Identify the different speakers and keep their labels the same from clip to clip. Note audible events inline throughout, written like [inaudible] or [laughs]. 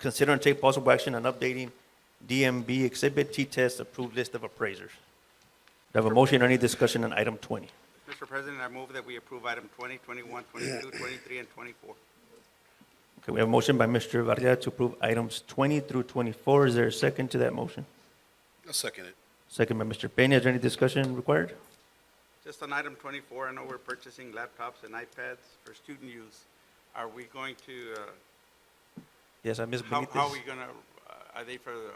Speaker 1: Consider and take possible action on updating DMB Exhibit T Test Approved List of Appraisers. Do I have a motion or any discussion on item 20?
Speaker 2: Mr. President, I move that we approve item 20, 21, 22, 23, and 24.
Speaker 1: Okay, we have a motion by Mr. Varela to approve items 20 through 24. Is there a second to that motion?
Speaker 3: I'll second it.
Speaker 1: Second by Mr. Peña. Is there any discussion required?
Speaker 2: Just on item 24, I know we're purchasing laptops and iPads for student use. Are we going to, uh,
Speaker 1: Yes, I Ms.
Speaker 2: how
Speaker 1: Benitez.
Speaker 2: how are we going to, are they for the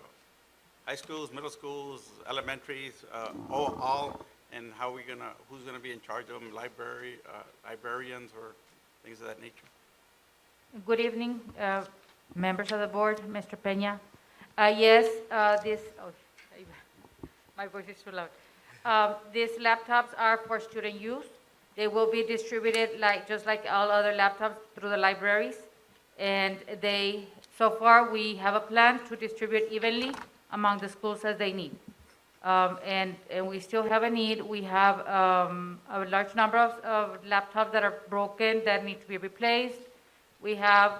Speaker 2: high schools, middle schools, elementaries, uh, all, all? And how are we going to, who's going to be in charge of them, library, uh, librarians or things of that nature?
Speaker 4: Good evening, uh, members of the board, Mr. Peña. Uh, Yes, uh, this, oh, my voice is too loud. Um, These laptops are for student use. They will be distributed like, just like all other laptops through the libraries. And they, so far, we have a plan to distribute evenly among the schools as they need. Um, And, and we still have a need. We have um, a large number of of laptops that are broken that need to be replaced. We have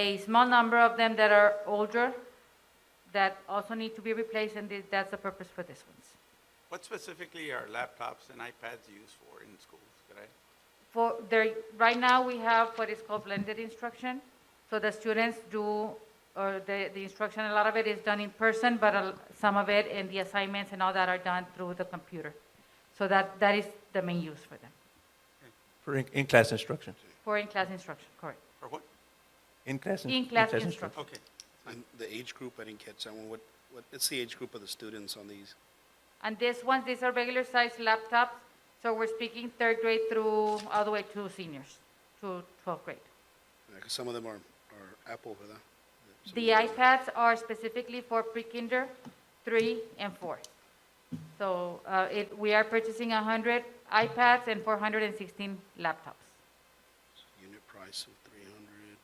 Speaker 4: a small number of them that are older that also need to be replaced, and thi- that's the purpose for this ones.
Speaker 2: What specifically are laptops and iPads used for in schools? Could I?
Speaker 4: For there, right now, we have what is called blended instruction. So the students do, or the, the instruction, a lot of it is done in person, but a- some of it and the assignments and all that are done through the computer. So that, that is the main use for them,
Speaker 1: For in- in-class instruction.
Speaker 4: for in-class instruction, correct.
Speaker 2: Or what?
Speaker 1: In-class. in-
Speaker 4: In-class
Speaker 1: in-class
Speaker 4: instruction.
Speaker 2: Okay.
Speaker 3: And the age group, I didn't catch that one. What, what, it's the age group of the students on these?
Speaker 4: And this one, these are regular sized laptops, so we're speaking third grade through, all the way to seniors, to 12th grade.
Speaker 3: Because some of them are, are Apple, ¿verdad? Some
Speaker 4: The
Speaker 3: of them are-
Speaker 4: iPads are specifically for pre-kinder, three and four. So uh, it, we are purchasing 100 iPads and 416 laptops.
Speaker 3: Unit price of three hundred.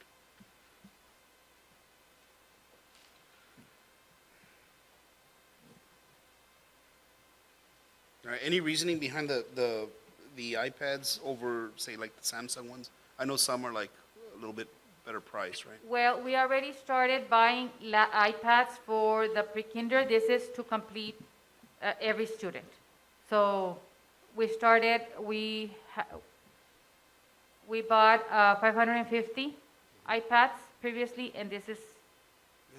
Speaker 3: All right, any reasoning behind the, the, the iPads over, say, like the Samsung ones? I know some are like a little bit better price, right?
Speaker 4: Well, we already started buying la- iPads for the pre-kinder. This is to complete uh, every student. So we started, we, ha- we bought uh, 550 iPads previously, and this is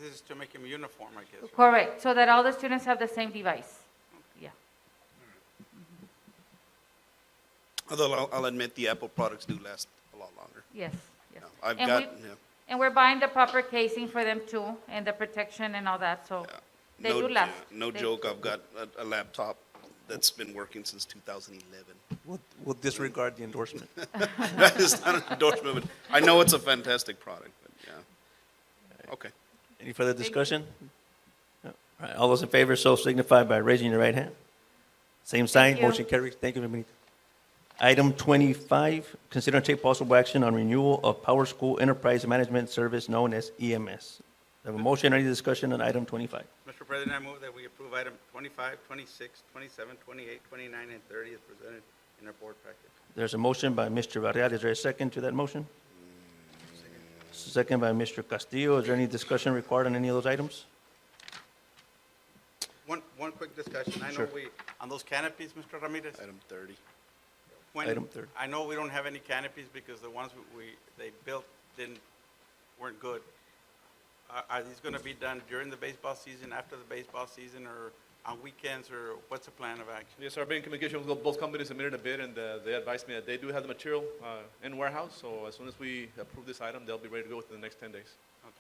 Speaker 2: This is to make them uniform, I guess. right?
Speaker 4: correct, so that all the students have the same device. Yeah.
Speaker 3: Although I'll, I'll admit the Apple products do last a lot longer.
Speaker 4: Yes, yes.
Speaker 3: Yeah, I've
Speaker 4: And
Speaker 3: got,
Speaker 4: we-
Speaker 3: yeah.
Speaker 4: And we're buying the proper casing for them too, and the protection and all that, so they
Speaker 3: Uh, no,
Speaker 4: do
Speaker 3: yeah,
Speaker 4: last.
Speaker 3: No
Speaker 4: They-
Speaker 3: joke, I've got a, a laptop that's been working since
Speaker 4: [laughs]
Speaker 3: 2011.
Speaker 1: We'll- We'll disregard the endorsement.
Speaker 3: that is not an endorsement, but I know it's a fantastic product, but yeah. Okay.
Speaker 1: Any further discussion? No. All right, all those in favor, so signify by raising your right hand. Same sign,
Speaker 4: Thank you.
Speaker 1: motion carries. Thank you, Ms. Benitez. Item 25, consider and take possible action on renewal of Power School Enterprise Management Service known as EMS. Do I Have a motion, any discussion on item 25?
Speaker 2: Mr. President, I move that we approve item 25, 26, 27, 28, 29, and 30 as presented in our board package.
Speaker 1: There's a motion by Mr. Varela. Is there a second to that motion? Second by Mr. Castillo. Is there any discussion required on any of those items?
Speaker 2: One, one quick discussion. I know
Speaker 1: Sure.
Speaker 2: we, on those canopies, Mr. Ramirez?
Speaker 3: Item 30.
Speaker 2: when-
Speaker 1: item thirty.
Speaker 2: I know we don't have any canopies because the ones we- we, they built didn't, weren't good. Are, are these going to be done during the baseball season, after the baseball season, or on weekends, or what's the plan of action?
Speaker 5: Yes, our bidding communication with both companies submitted a bid, and uh, they advised me that they do have the material uh, in warehouse, so as soon as we approve this item, they'll be ready to go within the next 10 days.
Speaker 2: Okay.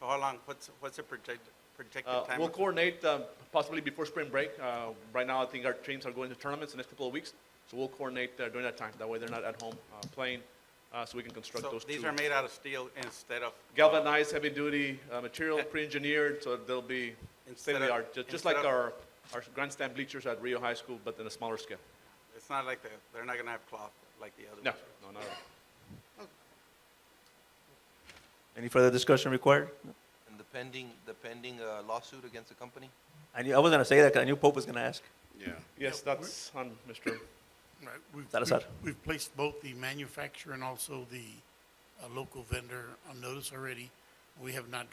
Speaker 2: So how long, what's, what's the projected, projected
Speaker 5: Uh,
Speaker 2: time?
Speaker 5: We'll
Speaker 2: of-
Speaker 5: coordinate uh, possibly before spring break. Uh, Right now, I think our teams are going to tournaments the next couple of weeks, so we'll coordinate uh, during that time. That way, they're not at home uh, playing, uh, so we can construct
Speaker 2: So
Speaker 5: those two.
Speaker 2: these are made out of steel instead of
Speaker 5: Galvanized, heavy-duty uh, material, pre-engineered, so they'll be
Speaker 2: Instead of-
Speaker 5: state-of-the-art, ju- just like
Speaker 2: instead of-
Speaker 5: our our grandstand bleachers at Rio High School, but in a smaller scale.
Speaker 2: It's not like the, they're not gonna have cloth like the other
Speaker 5: No,
Speaker 2: ones.
Speaker 5: no, not at all.
Speaker 1: Any further discussion required?
Speaker 6: And the pending, the pending uh, lawsuit against the company?
Speaker 1: I knew, I was gonna say that 'cause I knew Pope was gonna ask.
Speaker 3: Yeah.
Speaker 5: Yes, that's on Mr.
Speaker 7: Right, we've-
Speaker 1: Salazar.
Speaker 7: we've- We've placed both the manufacturer and also the uh, local vendor on notice already. We have not